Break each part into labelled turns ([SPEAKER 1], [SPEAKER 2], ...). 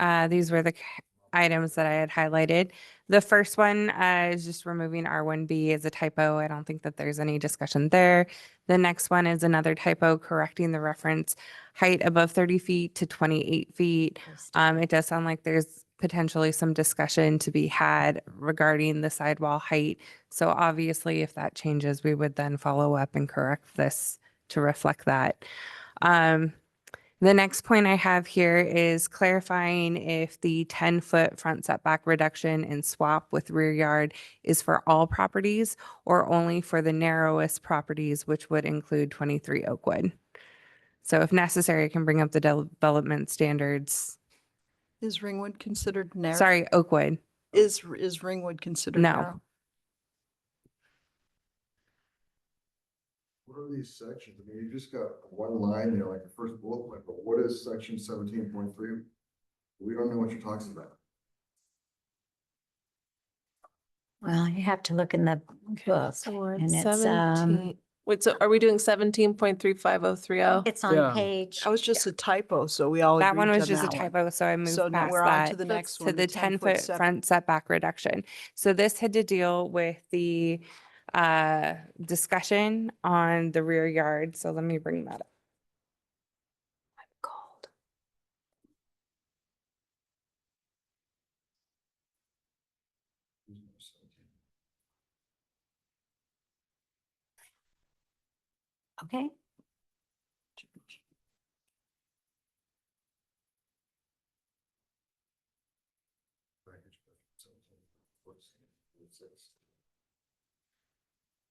[SPEAKER 1] Uh, these were the c- items that I had highlighted. The first one uh, is just removing R1B as a typo. I don't think that there's any discussion there. The next one is another typo, correcting the reference height above 30 feet to 28 feet. Um, it does sound like there's potentially some discussion to be had regarding the sidewall height. So obviously, if that changes, we would then follow up and correct this to reflect that. Um, the next point I have here is clarifying if the 10-foot front setback reduction and swap with rear yard is for all properties or only for the narrowest properties, which would include 23 Oakwood. So if necessary, I can bring up the development standards.
[SPEAKER 2] Is Ringwood considered narrow?
[SPEAKER 1] Sorry, Oakwood.
[SPEAKER 2] Is, is Ringwood considered
[SPEAKER 1] No.
[SPEAKER 2] narrow?
[SPEAKER 3] What are these sections? I mean, you just got one line there, like the first bullet point, but what is section seventeen point three? We don't know what you're talking about.
[SPEAKER 4] Well, you have to look in the book.
[SPEAKER 5] So we're at
[SPEAKER 4] And it's, um,
[SPEAKER 5] 17 Wait, so are we doing seventeen point three five oh three oh?
[SPEAKER 4] it's
[SPEAKER 6] Yeah.
[SPEAKER 4] on page.
[SPEAKER 2] That was just a typo, so we all
[SPEAKER 1] That one
[SPEAKER 2] agreed
[SPEAKER 1] was
[SPEAKER 2] on
[SPEAKER 1] just a
[SPEAKER 2] that one.
[SPEAKER 1] typo, so I moved
[SPEAKER 2] So now
[SPEAKER 1] past
[SPEAKER 2] we're on to
[SPEAKER 1] that
[SPEAKER 2] the
[SPEAKER 5] That's
[SPEAKER 2] next one.
[SPEAKER 1] to the 10-foot
[SPEAKER 2] setback.
[SPEAKER 1] front setback reduction. So this had to deal with the uh, discussion on the rear yard. So let me bring that up.
[SPEAKER 4] Gold. Okay,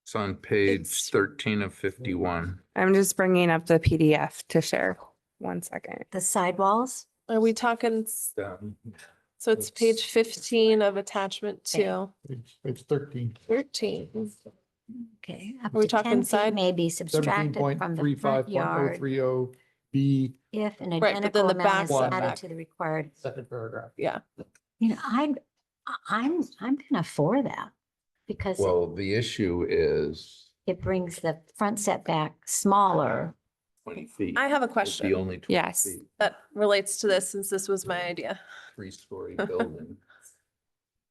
[SPEAKER 7] It's on page
[SPEAKER 2] It's-
[SPEAKER 7] thirteen of fifty-one.
[SPEAKER 1] I'm just bringing up the PDF to share. One second.
[SPEAKER 4] the sidewalls,
[SPEAKER 5] Are we talking, s-
[SPEAKER 7] Um,
[SPEAKER 5] so it's page fifteen of attachment
[SPEAKER 4] Yeah.
[SPEAKER 5] two,
[SPEAKER 6] It's, it's thirteen.
[SPEAKER 5] thirteen?
[SPEAKER 4] okay. up
[SPEAKER 5] Are we
[SPEAKER 4] to 10
[SPEAKER 5] talking
[SPEAKER 4] feet
[SPEAKER 5] side-
[SPEAKER 4] May be
[SPEAKER 6] Seventeen
[SPEAKER 4] subtracted
[SPEAKER 6] point
[SPEAKER 4] from
[SPEAKER 6] three
[SPEAKER 4] the front
[SPEAKER 6] five point oh
[SPEAKER 4] yard
[SPEAKER 6] three oh B.
[SPEAKER 4] if an
[SPEAKER 5] but then
[SPEAKER 4] identical
[SPEAKER 5] the
[SPEAKER 4] amount is
[SPEAKER 6] back
[SPEAKER 4] added
[SPEAKER 5] setback.
[SPEAKER 4] to the required.
[SPEAKER 6] Second paragraph.
[SPEAKER 5] Yeah,
[SPEAKER 4] You know, I'm, I'm, I'm kind of for that because it-
[SPEAKER 7] Well, the issue is
[SPEAKER 4] it brings the front setback smaller.
[SPEAKER 7] twenty feet.
[SPEAKER 5] I have a
[SPEAKER 7] It's the
[SPEAKER 5] question Uh,
[SPEAKER 7] only. 20
[SPEAKER 1] Yes.
[SPEAKER 7] feet,
[SPEAKER 5] that relates to this, since this was my idea.
[SPEAKER 7] Three-story building.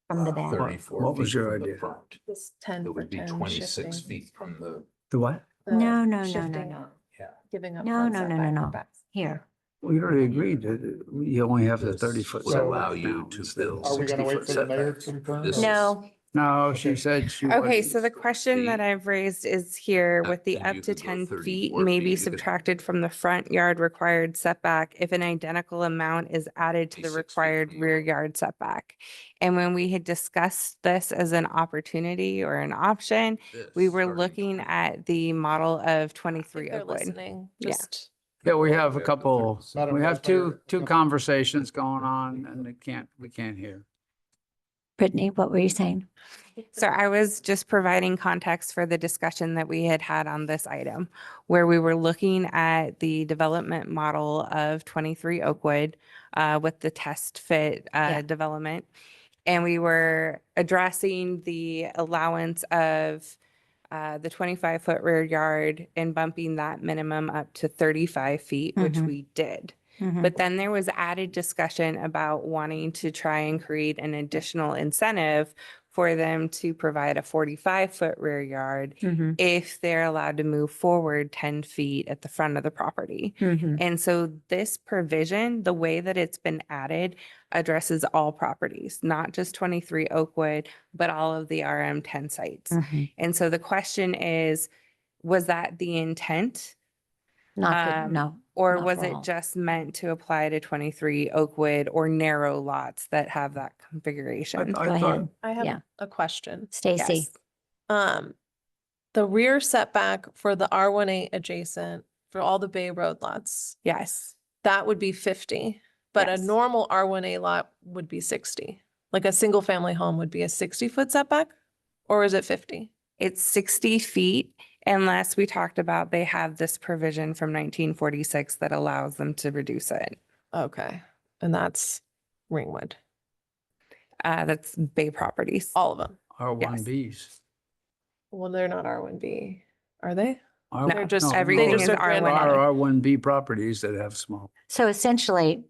[SPEAKER 4] From
[SPEAKER 7] uh,
[SPEAKER 4] the back.
[SPEAKER 7] Thirty-four.
[SPEAKER 8] What was
[SPEAKER 7] feet
[SPEAKER 8] your
[SPEAKER 7] from the
[SPEAKER 8] idea?
[SPEAKER 7] front.
[SPEAKER 5] This ten
[SPEAKER 7] It
[SPEAKER 5] for
[SPEAKER 7] would be
[SPEAKER 5] ten
[SPEAKER 7] twenty-six
[SPEAKER 5] shifting,
[SPEAKER 7] feet from the,
[SPEAKER 8] The what?
[SPEAKER 5] the
[SPEAKER 4] No, no, no, no,
[SPEAKER 5] shifting,
[SPEAKER 4] no.
[SPEAKER 7] yeah.
[SPEAKER 5] Giving up.
[SPEAKER 4] No,
[SPEAKER 5] front
[SPEAKER 4] no, no, no,
[SPEAKER 5] setback
[SPEAKER 4] no.
[SPEAKER 5] and back.
[SPEAKER 4] Here,
[SPEAKER 8] We already agreed that you only have the thirty foot.
[SPEAKER 7] Would allow you to build
[SPEAKER 6] Are we gonna wait
[SPEAKER 7] 60-foot
[SPEAKER 6] for the mayor
[SPEAKER 7] setbacks.
[SPEAKER 6] to return?
[SPEAKER 7] This is-
[SPEAKER 4] no,
[SPEAKER 8] No, she said she.
[SPEAKER 1] Okay,
[SPEAKER 8] wasn't-
[SPEAKER 1] so the question that
[SPEAKER 7] feet.
[SPEAKER 1] I've raised is here with the
[SPEAKER 7] and
[SPEAKER 1] up
[SPEAKER 7] you
[SPEAKER 1] to
[SPEAKER 7] could go
[SPEAKER 1] ten
[SPEAKER 7] 34
[SPEAKER 1] feet
[SPEAKER 7] feet,
[SPEAKER 1] may be
[SPEAKER 7] you could-
[SPEAKER 1] subtracted from the front yard required setback if an identical amount is added to
[SPEAKER 7] Be
[SPEAKER 1] the
[SPEAKER 7] 6 feet
[SPEAKER 1] required
[SPEAKER 7] from the
[SPEAKER 1] rear
[SPEAKER 7] yard.
[SPEAKER 1] yard setback. And when we had discussed this as an opportunity or an option, we
[SPEAKER 7] This,
[SPEAKER 1] were
[SPEAKER 7] starting
[SPEAKER 1] looking
[SPEAKER 7] 20.
[SPEAKER 1] at the model of
[SPEAKER 5] I
[SPEAKER 1] twenty-three oh
[SPEAKER 5] think
[SPEAKER 4] oh,
[SPEAKER 5] they're
[SPEAKER 1] Oakwood.
[SPEAKER 5] listening,
[SPEAKER 1] Yeah.
[SPEAKER 5] just.
[SPEAKER 8] Yeah, we have
[SPEAKER 7] We have
[SPEAKER 8] a
[SPEAKER 7] the
[SPEAKER 8] couple,
[SPEAKER 7] 30.
[SPEAKER 8] we have
[SPEAKER 6] Madam Vice
[SPEAKER 8] two,
[SPEAKER 6] Mayor.
[SPEAKER 8] two conversations going on and they can't, we can't hear.
[SPEAKER 4] Brittany, what were you saying?
[SPEAKER 1] So I was just providing context for the discussion that we had had on this item, where we were looking at the development model of 23 Oakwood uh, with the test fit uh,
[SPEAKER 4] Yeah.
[SPEAKER 1] development. And we were addressing the allowance of uh, the 25-foot rear yard and bumping that minimum up to 35 feet, which
[SPEAKER 5] Mm-hmm.
[SPEAKER 4] Mhm.
[SPEAKER 1] we did.
[SPEAKER 4] Mhm.
[SPEAKER 1] But then there was added discussion about wanting to try and create an additional incentive for them to provide a forty-five foot rear yard
[SPEAKER 4] Mhm.
[SPEAKER 1] if they're allowed to move forward ten feet at the front of the property.
[SPEAKER 4] Mhm.
[SPEAKER 1] And so this provision, the way that it's been added, addresses all properties, not just twenty-three Oakwood, but all of the RM ten sites.
[SPEAKER 4] Mhm.
[SPEAKER 1] And so the question is, was that the intent?
[SPEAKER 4] Not
[SPEAKER 1] Um,
[SPEAKER 4] good, no.
[SPEAKER 1] Or
[SPEAKER 4] Not
[SPEAKER 1] was
[SPEAKER 4] for
[SPEAKER 1] it
[SPEAKER 4] all.
[SPEAKER 1] just meant to apply to twenty-three Oakwood or narrow lots that have that configuration?
[SPEAKER 4] Go ahead,
[SPEAKER 5] I
[SPEAKER 4] Yeah.
[SPEAKER 5] have a question.
[SPEAKER 4] Stacy.
[SPEAKER 1] Yes.
[SPEAKER 5] Um, the rear setback for the R one eight adjacent, for all the Bay Road lots,
[SPEAKER 1] Yes,
[SPEAKER 5] that would be fifty. But a
[SPEAKER 1] Yes.
[SPEAKER 5] normal R one A lot would be sixty. Like a single family home would be a sixty foot setback? Or is it fifty?
[SPEAKER 1] it's sixty feet unless we talked about they have this provision from nineteen forty-six that allows them to reduce it.
[SPEAKER 5] Okay, and that's Ringwood,
[SPEAKER 1] Uh, that's Bay Properties.
[SPEAKER 5] all of them.
[SPEAKER 8] R one Bs.
[SPEAKER 5] Well, they're not R one B, are they?
[SPEAKER 1] No,
[SPEAKER 5] They're just,
[SPEAKER 1] everything
[SPEAKER 5] they just
[SPEAKER 1] is
[SPEAKER 5] are
[SPEAKER 1] R1A.
[SPEAKER 5] grandfathered.
[SPEAKER 8] R one B properties that have small.
[SPEAKER 4] So essentially,